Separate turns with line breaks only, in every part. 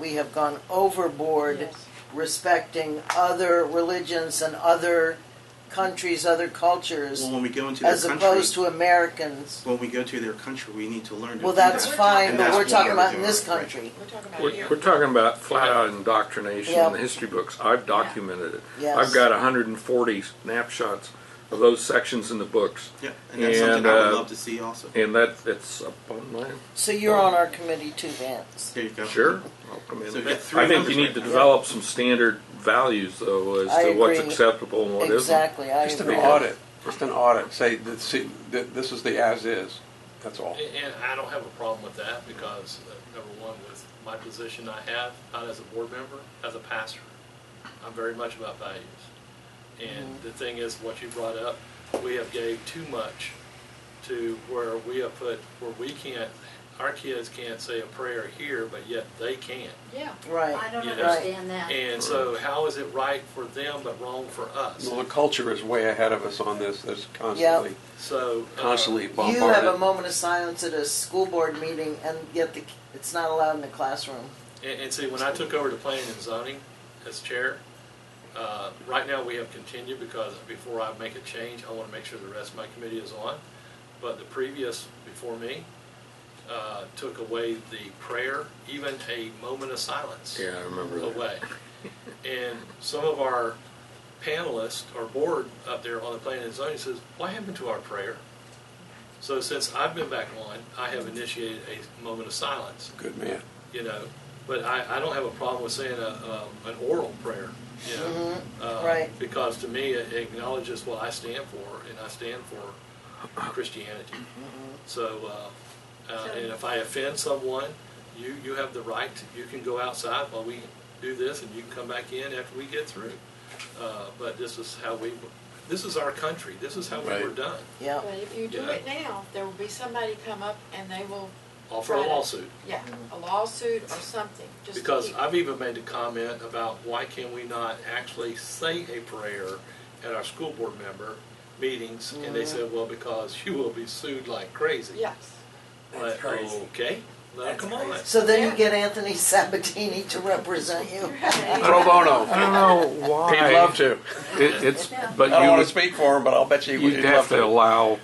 we have gone overboard
Yes.
respecting other religions and other countries, other cultures,
Well, when we go into their
as
country,
opposed to Americans.
when we go to their country, we need to learn. To
Well,
do
that's
that.
fine,
And
but
that's
we're
what
talking about in
doing,
this
right.
country.
We're talking about
We're,
here.
we're talking about flat out indoctrination in the
Yep.
history books. I've documented it.
Yes.
I've got 140 snapshots of those sections in the books.
Yeah, and that's something
And,
I would
uh,
love to see also.
And that it's up on my
So you're on our committee too, Vance.
There you go.
sure. I'll come in.
So you got three
I think
numbers
you need
right
to
now.
develop some standard values though as
I
to what's
agree.
acceptable and what not
exactly, I
Just an
agree.
audit, just an audit, say, that, see, that this is the as-is, that's all.
And I don't have a problem with that because, uh, number one, with my position I have, not as a board member, as a pastor, I'm very much about values. And the thing is, what you brought up, we have gave too much to where we have put, where we can't, our kids can't say a prayer here, but yet they can.
Yeah.
Right.
I don't
Yeah.
understand that.
And so how is it right for them but wrong for us?
Well, the culture is way ahead of us on this, that's constantly,
So. uh,
constantly bombarded.
You have a moment of silence at a school board meeting, and yet the, it's not allowed in the classroom.
And, and see, when I took over the planning and zoning as chair, uh, right now we have continued because before I make a change, I want to make sure the rest of my committee is on. But the previous, before me, uh, took away the prayer, even a moment of silence
Yeah, I remember that.
away. And some of our panelists or board up there on the planning and zoning says, what happened to our prayer? So since I've been back on, I have initiated a moment of silence
Good man.
you know. But I, I don't have a problem with saying a, a, an oral prayer, you know, uh,
right.
because to me it acknowledges what I stand for, and I stand for Christianity. So, uh, uh, and if I offend someone, you you have the right. To, you can go outside while we do this, and you can come back in after we get through. Uh, but this is how we. This is our country. This is how we were
Right.
done.
Yeah.
But if you do
Yeah.
it now, there will be somebody come up and they will,
Offer a
Right.
lawsuit.
yeah,
Mm-hmm.
a lawsuit or something, just to
Because
keep-
I've even made a comment about why can we not actually say a prayer at our school board member meetings? And they
Mm-hmm.
said, well, because you will be sued like crazy.
Yes.
Like, Okay, now come on.
So then you get Anthony Sabatini to represent you.
Pro
I
bono,
don't know why.
he'd love to.
It, it's
Yeah.
I
but
don't
you
wanna
would,
speak for him, but I'll bet you he would
you'd
he'd
have
love
to
to.
allow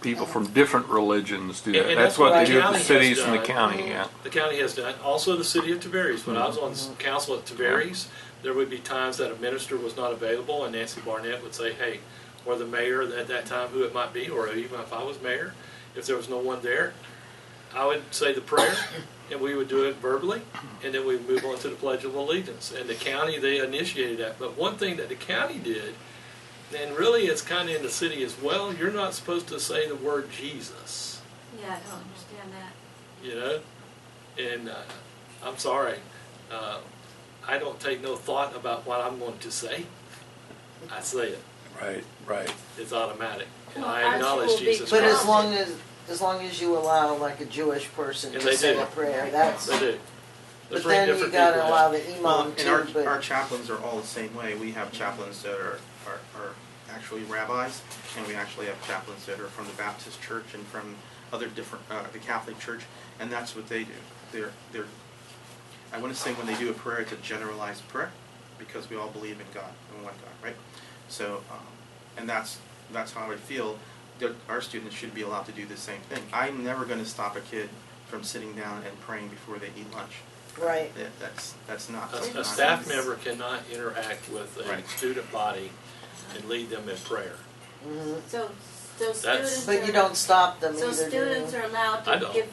people from different religions to do
And-
that.
and
That's what they do at
county
the
has
cities and the
done.
county. Yeah.
The county has done, also the city of Tiberias. When I was on s- council at Tiberias, there would be times that a minister was not available and Nancy Barnett would say, hey, or the mayor at that time, who it might be, or even if I was mayor, if there was no one there, I would say the prayer, and we would do it verbally, and then we'd move on to the Pledge of Allegiance. And the county, they initiated that. But one thing that the county did, and really it's kind of in the city as well, you're not supposed to say the word Jesus,
Yeah, I don't understand that.
you know? And uh, I'm sorry, uh, I don't take no thought about what I'm going to say. I say it,
Right, right.
it's automatic. And
Well, ours
I
will
acknowledge
be-
Jesus
But as
Christ.
long as, as long as you allow like a Jewish person
And
to
they
say
do.
a prayer, that's,
They do.
but
There's three
then you
different
gotta
people.
allow the
Well,
imam
and our,
too, but.
our chaplains are all the same way. We have chaplains that are, are, are actually rabbis, and we actually have chaplains that are from the Baptist Church and from other different, uh, the Catholic Church, and that's what they do. They're, they're, I want to say when they do a prayer, it's a generalized prayer, because we all believe in God, in one God, right? So, um, and that's, that's how I feel that our students should be allowed to do the same thing. I'm never going to stop a kid from sitting down and praying before they eat lunch.
Right.
That- That's, that's not.
A, a
something
staff
I-
member cannot interact with a
Right.
student body and lead them in prayer.
So, so
That's-
students are.
But you don't stop them
So
either, do you?
students are allowed
I
to
don't.
give,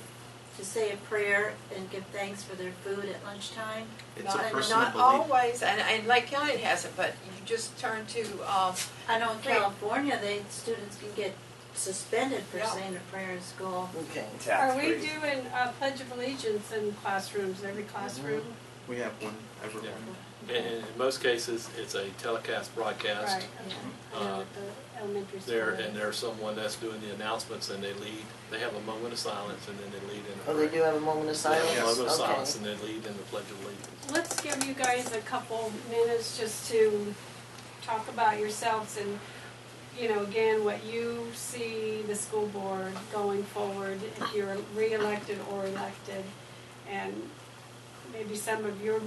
to say a prayer and give thanks for their food at lunchtime?
It's a
Not-
personal
Not
belief.
always, and, and Lake County has it, but you just turn to, um,
I know in
Right.
California, they, students can get suspended for
Yeah.
saying a prayer in school.
Okay.
Are we doing uh, Pledge of Allegiance in classrooms, every
Mhm.
classroom?
We have one, everyone.
And in most cases, it's a telecast broadcast.
Right, okay. I know at the elementary school.
Uh, There, and there's someone that's doing the announcements and they lead, they have a moment of silence and then they lead in a
Oh, they
prayer.
do have a moment of
They have
silence?
a moment of
Okay.
silence and they lead in the Pledge of Allegiance.
Let's give you guys a couple minutes just to talk about yourselves and, you know, again, what you see the school board going forward, if you're re-elected or elected, and maybe some of your